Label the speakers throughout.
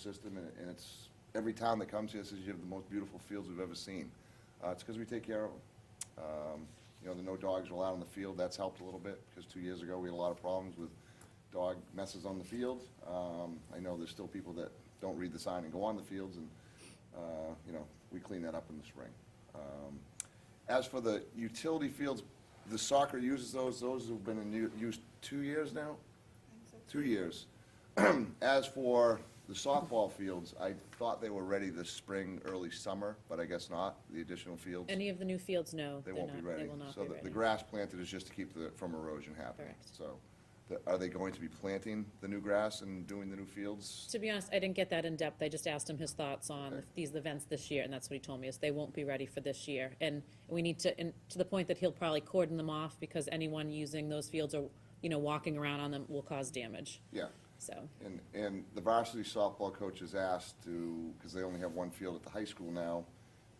Speaker 1: system, and and it's, every town that comes here says you have the most beautiful fields we've ever seen. Uh, It's because we take care of them. Um, You know, the no dogs were allowed on the field, that's helped a little bit, because two years ago, we had a lot of problems with dog messes on the field. Um, I know there's still people that don't read the sign and go on the fields, and, uh, you know, we clean that up in the spring. Um, As for the utility fields, the soccer uses those, those have been in u- use two years now? Two years. As for the softball fields, I thought they were ready this spring, early summer, but I guess not, the additional fields.
Speaker 2: Any of the new fields, no,
Speaker 1: They
Speaker 2: they're
Speaker 1: won't be
Speaker 2: not, they
Speaker 1: ready.
Speaker 2: will not be
Speaker 1: So the-
Speaker 2: ready.
Speaker 1: the grass planted is just to keep the, from erosion happening.
Speaker 2: Correct.
Speaker 1: So, the- are they going to be planting the new grass and doing the new fields?
Speaker 2: To be honest, I didn't get that in depth, I just asked him his thoughts on
Speaker 1: Okay.
Speaker 2: these events this year, and that's what he told me, is they won't be ready for this year. And we need to, and to the point that he'll probably cordon them off, because anyone using those fields or, you know, walking around on them will cause damage,
Speaker 1: Yeah.
Speaker 2: so.
Speaker 1: And, and the varsity softball coach is asked to, because they only have one field at the high school now,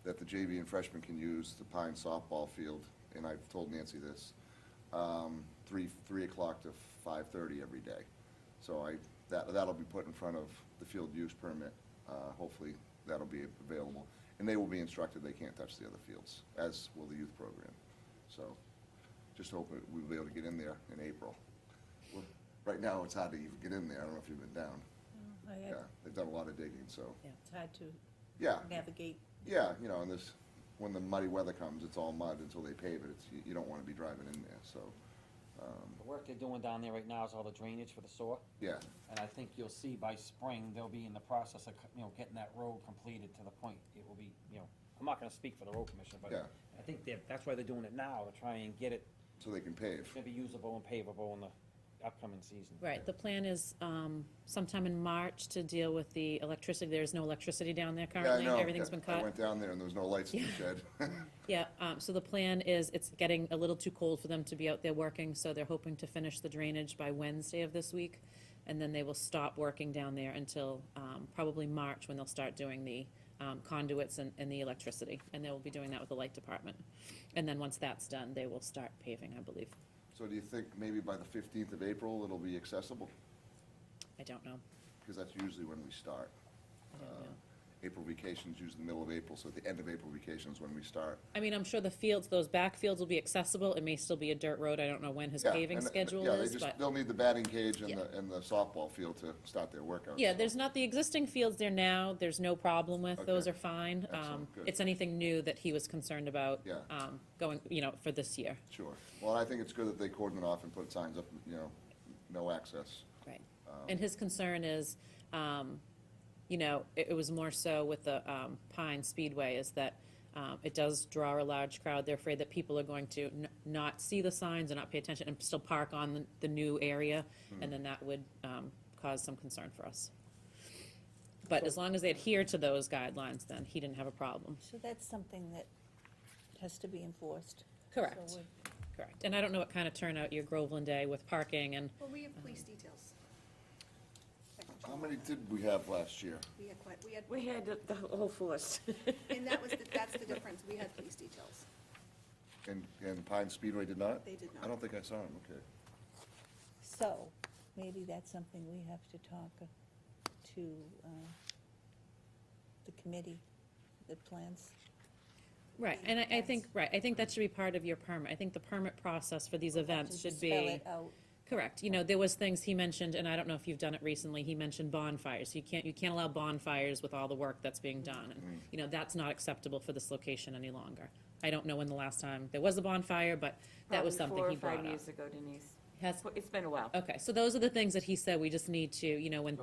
Speaker 1: that the JV and freshmen can use, the Pine softball field, and I've told Nancy this, um, three, three o'clock to five-thirty every day. So I, that, that'll be put in front of the field use permit, uh, hopefully that'll be available. And they will be instructed they can't touch the other fields, as will the youth program. So, just hope that we'll be able to get in there in April. Well, Right now, it's hard to even get in there, I don't know if you've been down.
Speaker 3: I-
Speaker 1: Yeah, they've done a lot of digging, so,
Speaker 3: It's hard to
Speaker 1: yeah,
Speaker 3: navigate.
Speaker 1: yeah, you know, and this, when the muddy weather comes, it's all mud until they pave it, it's, you- you don't wanna be driving in there, so,
Speaker 4: The work they're doing down there right now is all the drainage for the sewer,
Speaker 1: yeah,
Speaker 4: and I think you'll see by spring, they'll be in the process of, you know, getting that road completed to the point it will be, you know, I'm not gonna speak for the road commission, but
Speaker 1: Yeah.
Speaker 4: I think they're, that's why they're doing it now, to try and get it,
Speaker 1: so they can
Speaker 4: it's
Speaker 1: pave.
Speaker 4: gonna be usable and pavable in the upcoming season.
Speaker 2: Right, the plan is um, sometime in March to deal with the electricity, there's no electricity down there
Speaker 1: Yeah, I
Speaker 2: currently,
Speaker 1: know.
Speaker 2: everything's been
Speaker 1: I
Speaker 2: cut.
Speaker 1: went down there and there was no lights in the
Speaker 2: Yeah.
Speaker 1: shed.
Speaker 2: Yeah, um, so the plan is, it's getting a little too cold for them to be out there working, so they're hoping to finish the drainage by Wednesday of this week. And then they will stop working down there until um, probably March, when they'll start doing the um, conduits and, and the electricity. And they will be doing that with the light department. And then once that's done, they will start paving, I believe.
Speaker 1: So do you think maybe by the fifteenth of April, it'll be accessible?
Speaker 2: I don't know.
Speaker 1: Because that's usually when we start. Uh,
Speaker 2: I don't know.
Speaker 1: April vacation's usually the middle of April, so at the end of April vacation is when we start.
Speaker 2: I mean, I'm sure the fields, those back fields will be accessible. It may still be a dirt road. I don't know when his
Speaker 1: Yeah,
Speaker 2: paving
Speaker 1: and- and-
Speaker 2: schedule
Speaker 1: yeah, they
Speaker 2: is,
Speaker 1: just-
Speaker 2: but.
Speaker 1: They'll need the batting cage and
Speaker 2: Yeah.
Speaker 1: the, and the softball field to start their workout.
Speaker 2: Yeah, there's not, the existing fields there now, there's no problem with. Those
Speaker 1: Okay.
Speaker 2: are fine. Um,
Speaker 1: Excellent, good.
Speaker 2: It's anything new that he was concerned about.
Speaker 1: Yeah.
Speaker 2: um, Going, you know, for this year.
Speaker 1: Sure. Well, I think it's good that they cordon it off and put signs up, you know, no access.
Speaker 2: Right. And his concern is, um, you know, it, it was more so with the, um, Pine Speedway is that, um, it does draw a large crowd. They're afraid that people are going to n- not see the signs and not pay attention and still park on the, the new area. And then that would, um, cause some concern for us. But as long as they adhere to those guidelines, then he didn't have a problem.
Speaker 3: So that's something that has to be enforced.
Speaker 2: Correct.
Speaker 3: So we-
Speaker 2: Correct. And I don't know what kind of turnout your Groveland Day with parking and,
Speaker 5: Well, we have police details.
Speaker 1: How many did we have last year?
Speaker 5: We had quite, we had,
Speaker 6: Um, We had the- the whole force.
Speaker 5: and that was, the- that's the difference, we had police details.
Speaker 1: And, and Pine Speedway did not?
Speaker 5: They did not.
Speaker 1: I don't think I saw them, okay.
Speaker 3: So maybe that's something we have to talk uh, to uh, the committee that plans.
Speaker 2: right, and I, I think, right, I think that should be part of your permit. I think the permit process for these events
Speaker 3: to
Speaker 2: should be.
Speaker 3: Spell it out.
Speaker 2: Correct. You know, there was things he mentioned, and I don't know if you've done it recently, he mentioned bonfires. You can't, you can't allow bonfires with all the work that's being done. And, you know, that's not acceptable for this location any longer. I don't know when the last time there was a bonfire, but that was
Speaker 6: Probably
Speaker 2: something he
Speaker 6: Four or
Speaker 2: brought
Speaker 6: five
Speaker 2: up.
Speaker 6: years ago, Denise.
Speaker 2: Has-
Speaker 6: It's been a while.
Speaker 2: Okay, so those are the things that he said we just need to, you know, when,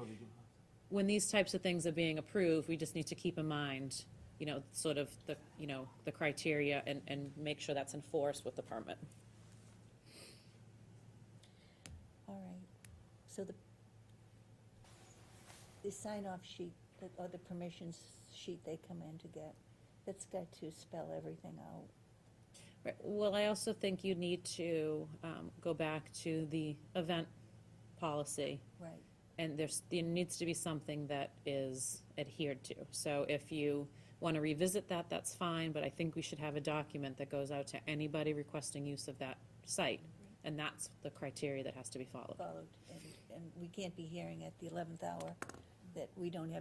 Speaker 2: when these types of things are being approved, we just need to keep in mind, you know, sort of the, you know, the criteria and, and make sure that's enforced with the permit.
Speaker 3: All right. So the, the sign-off sheet, that- or the permissions sheet they come in to get, that's got to spell everything out.
Speaker 2: Right, well, I also think you need to, um, go back to the event policy.
Speaker 3: Right.
Speaker 2: And there's, there needs to be something that is adhered to. So if you want to revisit that, that's fine, but I think we should have a document that goes out to anybody requesting use of that site. And that's the criteria that has to be followed.
Speaker 3: followed, and, and we can't be hearing at the eleventh hour that we don't have